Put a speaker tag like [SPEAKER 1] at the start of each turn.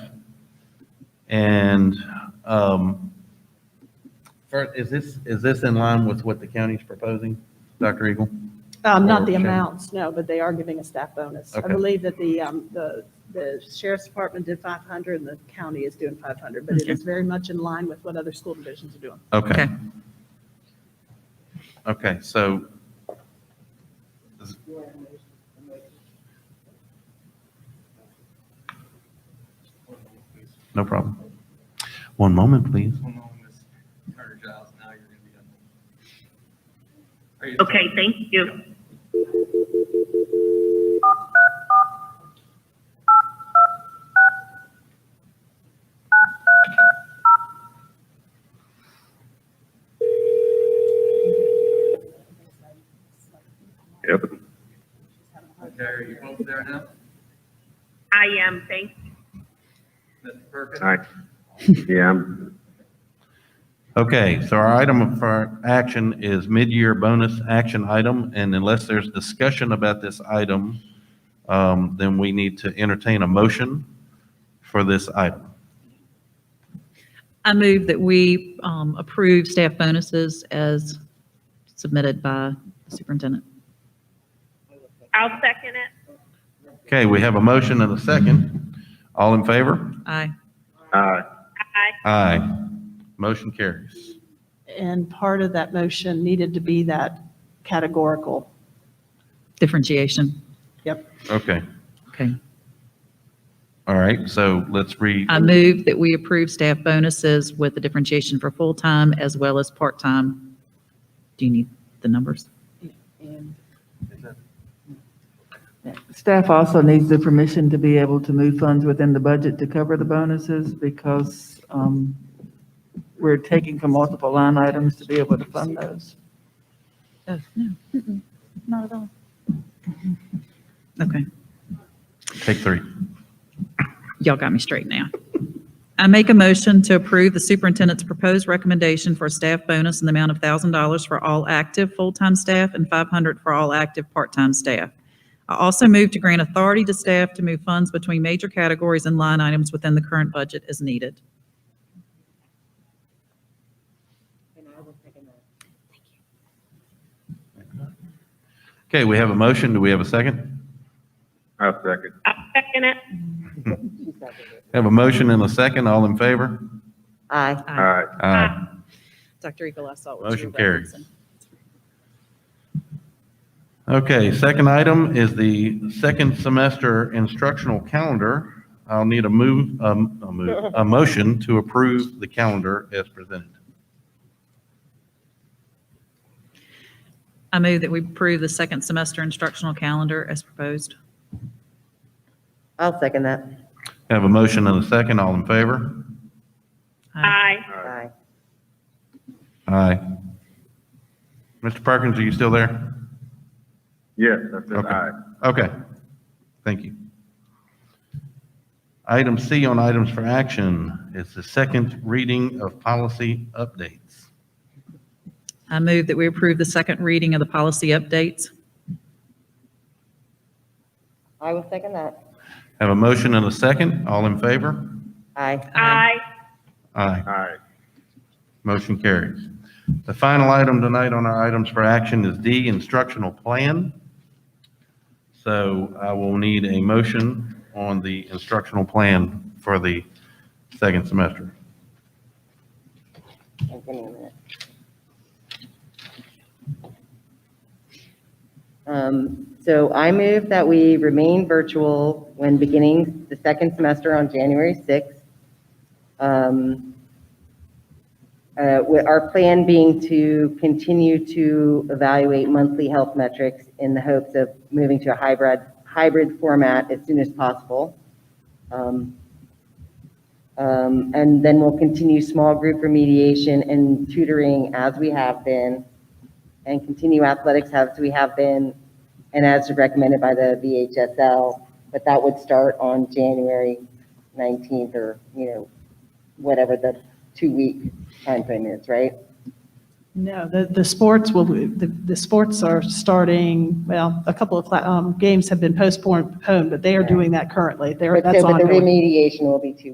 [SPEAKER 1] And um, fir- is this, is this in line with what the county's proposing, Dr. Eagle?
[SPEAKER 2] Um, Not the
[SPEAKER 1] Or change.
[SPEAKER 2] amounts, no, but they are giving a staff bonus. I
[SPEAKER 1] Okay.
[SPEAKER 2] believe that the, um, the, the sheriff's department did 500 and the county is doing 500, but it is very much in line with what other school divisions are doing.
[SPEAKER 1] Okay.
[SPEAKER 3] Okay.
[SPEAKER 1] Okay, so no problem. One moment, please.
[SPEAKER 4] Hold on, Ms. Carter Giles, now you're gonna be on. Are you-
[SPEAKER 5] Okay, thank you.
[SPEAKER 6] Yep.
[SPEAKER 4] Okay, are you both there now?
[SPEAKER 5] I am, thank
[SPEAKER 4] Mr. Perkins?
[SPEAKER 6] Hi. Yeah, I'm,
[SPEAKER 1] Okay, so our item for action is mid-year bonus action item, and unless there's discussion about this item, um, then we need to entertain a motion for this item.
[SPEAKER 3] I move that we um, approve staff bonuses as submitted by the superintendent.
[SPEAKER 5] I'll second it.
[SPEAKER 1] Okay, we have a motion and a second. All in favor?
[SPEAKER 3] Aye.
[SPEAKER 6] uh,
[SPEAKER 5] Aye.
[SPEAKER 1] Aye. Motion carries.
[SPEAKER 2] And part of that motion needed to be that categorical.
[SPEAKER 3] Differentiation.
[SPEAKER 2] Yep.
[SPEAKER 1] Okay,
[SPEAKER 3] Okay.
[SPEAKER 1] all right, so let's read.
[SPEAKER 3] I move that we approve staff bonuses with the differentiation for full-time as well as part-time. Do you need the numbers?
[SPEAKER 2] And
[SPEAKER 7] Staff also needs the permission to be able to move funds within the budget to cover the bonuses because um, we're taking from multiple line items to be able to fund those.
[SPEAKER 3] Oh, no. Mm-mm. Not at all. Okay.
[SPEAKER 1] Take three.
[SPEAKER 3] Y'all got me straight now. I make a motion to approve the superintendent's proposed recommendation for a staff bonus in the amount of $1,000 for all active full-time staff and 500 for all active part-time staff. I also move to grant authority to staff to move funds between major categories and line items within the current budget as needed.
[SPEAKER 1] Okay, we have a motion, do we have a second?
[SPEAKER 6] I'll second.
[SPEAKER 5] I'll second it.
[SPEAKER 1] Have a motion and a second, all in favor?
[SPEAKER 7] Aye.
[SPEAKER 6] All right.
[SPEAKER 1] Aye.
[SPEAKER 3] Dr. Eagle, I saw
[SPEAKER 1] what you Motion were carried. referencing. Okay, second item is the second semester instructional calendar. I'll need a move, um, a move, a motion to approve the calendar as presented.
[SPEAKER 3] I move that we approve the second semester instructional calendar as proposed.
[SPEAKER 8] I'll second that.
[SPEAKER 1] Have a motion and a second, all in favor?
[SPEAKER 5] Aye.
[SPEAKER 8] Aye.
[SPEAKER 1] Aye. Mr. Perkins, are you still there?
[SPEAKER 6] Yes, I said
[SPEAKER 1] Okay.
[SPEAKER 6] aye.
[SPEAKER 1] Okay, thank you. Item C on items for action is the second reading of policy updates.
[SPEAKER 3] I move that we approve the second reading of the policy updates.
[SPEAKER 8] I will second that.
[SPEAKER 1] Have a motion and a second, all in favor?
[SPEAKER 8] Aye.
[SPEAKER 5] Aye.
[SPEAKER 1] Aye.
[SPEAKER 6] All right.
[SPEAKER 1] Motion carries. The final item tonight on our items for action is D, instructional plan. So I will need a motion on the instructional plan for the second semester.
[SPEAKER 8] Give me a minute. Um, So I move that we remain virtual when beginning the second semester on January 6th. Um, uh, with Our plan being to continue to evaluate monthly health metrics in the hopes of moving to a hybrid, hybrid format as soon as possible. Um, Um, And then we'll continue small group remediation and tutoring as we have been, and continue athletics as we have been, and as recommended by the VHSL, but that would start on January 19th or, you know, whatever the two-week timeframe is, right?
[SPEAKER 2] No, the, the sports will, the, the sports are starting, well, a couple of cla- um, games have been postponed, postponed, but they are doing that currently. They're,
[SPEAKER 8] But
[SPEAKER 2] that's
[SPEAKER 8] so- But the
[SPEAKER 2] ongoing.
[SPEAKER 8] remediation will be two